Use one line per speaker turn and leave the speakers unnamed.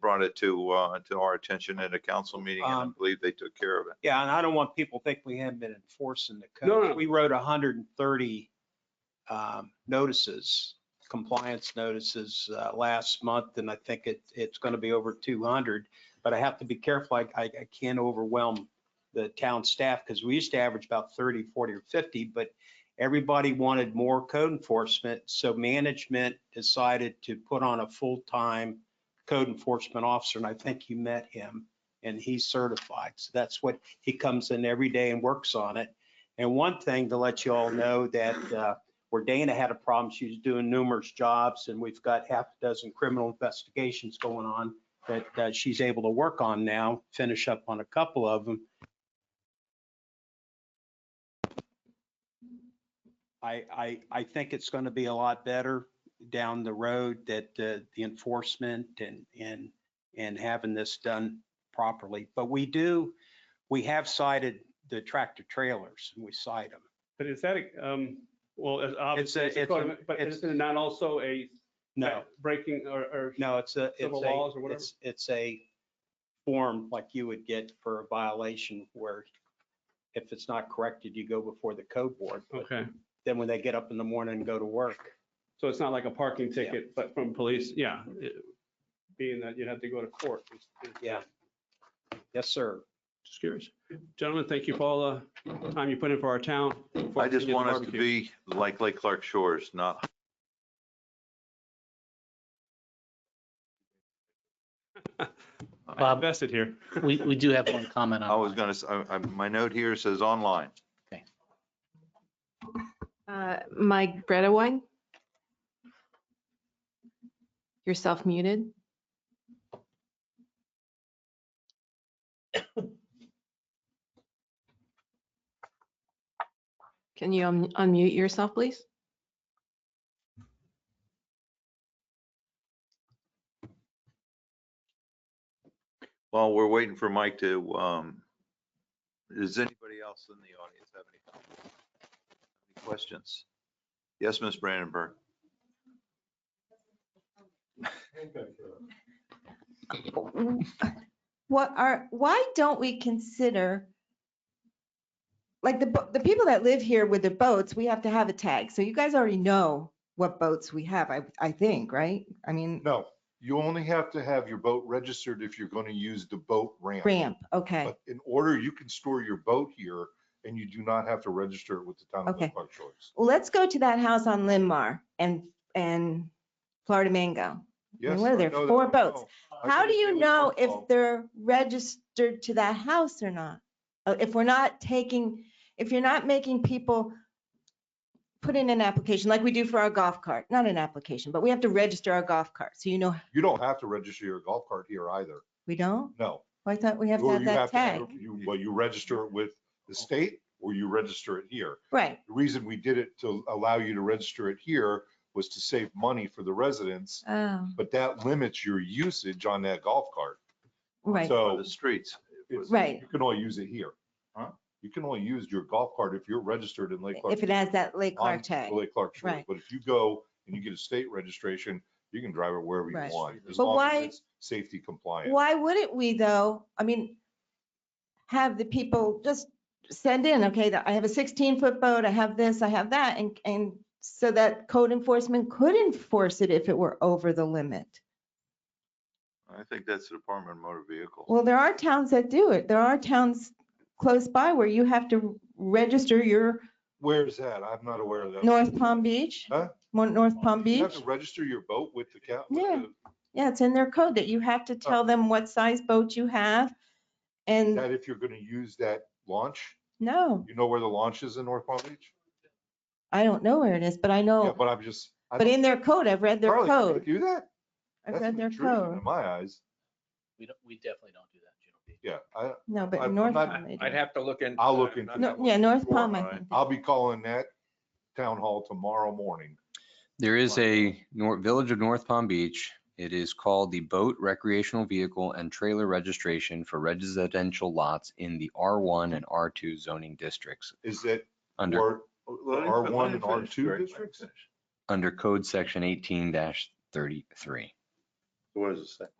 brought it to, uh, to our attention at a council meeting and I
Um,
believe they took care of it.
Yeah, and I don't want people to think we haven't been enforcing the
No, no.
code. We wrote hundred and thirty um, notices, compliance notices, uh, last month, and I think it, it's gonna be over two hundred. But I have to be careful. I, I I can't overwhelm the town staff, because we used to average about 30, 40, or fifty, but everybody wanted more code enforcement, so management decided to put on a full-time code enforcement officer, and I think you met him, and he's certified. So that's what, he comes in every day and works on it. And one thing to let you all know that uh, where Dana had a problem, she was doing numerous jobs, and we've got half a dozen criminal investigations going on that uh, she's able to work on now, finish up on a couple of them. I, I, I think it's going to be a lot better down the road that uh, the enforcement and, and, and having this done properly. But we do, we have cited the tractor trailers and we cite them.
But is that, a- um, well, it's obviously, it's a
it's
code
a-
amendment, but
it's-
is it not also a
No,
breaking or, or?
no, it's a, it's
Civil laws or
a,
whatever?
it's, it's a form like you would get for a violation where if it's not corrected, you go before the code board. But
Okay,
Then when they get up in the morning and go to work.
so it's not like a parking ticket, but from police, yeah, it- being that you'd have to go to court.
Yeah. Yes, sir.
Just curious. Gentlemen, thank you for all the time you put in for our town.
I just want us to
Barbecue.
be like Lake Clark Shores, not
I
Bob.
Invested here.
We, we do have one comment
Oh.
on.
I was gonna, s- I- I- my note here says online.
Uh, Mike Bredewine? You're self-muted. Can you un- unmute yourself, please?
While we're waiting for Mike to, um, does anybody else in the audience have any any questions? Yes, Ms. Brandenburg.
What are, why don't we consider, like, the, bo- the people that live here with their boats, we have to have a tag. So you guys already know what boats we have, I, I think, right? I mean,
No, you only have to have your boat registered if you're going to use the boat ramp.
ramp, okay,
But in order, you can store your boat here and you do not have to register it with the town of
Okay.
Lake Park Shores.
Well, let's go to that house on Linmar and, and Florida Mango.
Yes,
what are
I
there,
know that.
four
I
boats?
know. I
How
can
do
agree
you
with
know
phone
if
call.
they're registered to that house or not? Uh, If we're not taking, if you're not making people put in an application like we do for our golf cart, not an application, but we have to register our golf cart. So you know,
You don't have to register your golf cart here either.
we don't?
No.
Well, I thought we have to
Or
have
you
that tag.
have- you- Well, you register it with the state or you register it here.
Right,
The reason we did it to allow you to register it here was to save money for the residents,
oh,
but that limits your usage on that golf cart.
For
right.
So
The streets.
it's-
Right.
You can only use it here.
Huh?
You can only use your golf cart if you're registered in Lake Clark.
If it has that Lake Clark
on
tag.
Lake Clark Shores.
Right.
But if you go and you get a state registration, you can drive it wherever you
Right.
want. as
But
long as
why-
it's Safety compliant.
Why wouldn't we though? I mean, have the people just send in, okay, that I have a sixteen foot boat, I have this, I have that, and, and so that code enforcement could enforce it if it were over the limit.
I think that's the Department of Motor Vehicles.
Well, there are towns that do it. There are towns close by where you have to register your
Where's that? I'm not aware of that.
North Palm Beach.
Huh?
Mo- North Palm
You
Beach.
have to register your boat with the cap.
Yeah. Yeah, it's in their code that you have to tell
Oh.
them what size boat you have. And
That if you're going to use that launch,
no,
you know where the launch is in North Palm Beach?
I don't know where it is, but I
Yeah,
know,
but I'm just. I
but
don't-
in their code, I've read their
Charlie, can you
code.
Do that?
I've
That's
read their
intrusion
code.
In my eyes,
We don't, we definitely don't do that, General.
yeah. I,
No,
I-
but
I'm
in North
not-
Palm. they
I'd
do.
have to look into.
I'll look
that.
into
No, Yeah, North
Sure,
Palm, I
right.
think. they
I'll
do.
be calling that town hall tomorrow morning.
There is
Wow.
a Nor- Village of North Palm Beach. It is called the Boat Recreational Vehicle and Trailer Registration for Residential Lots in the R1 and R2 zoning districts
Is that
under,
or
Let him
R1
fin- let him
and
finish,
R2
Greg. Let him
districts?
finish.
under code section 18-33.
What does it say?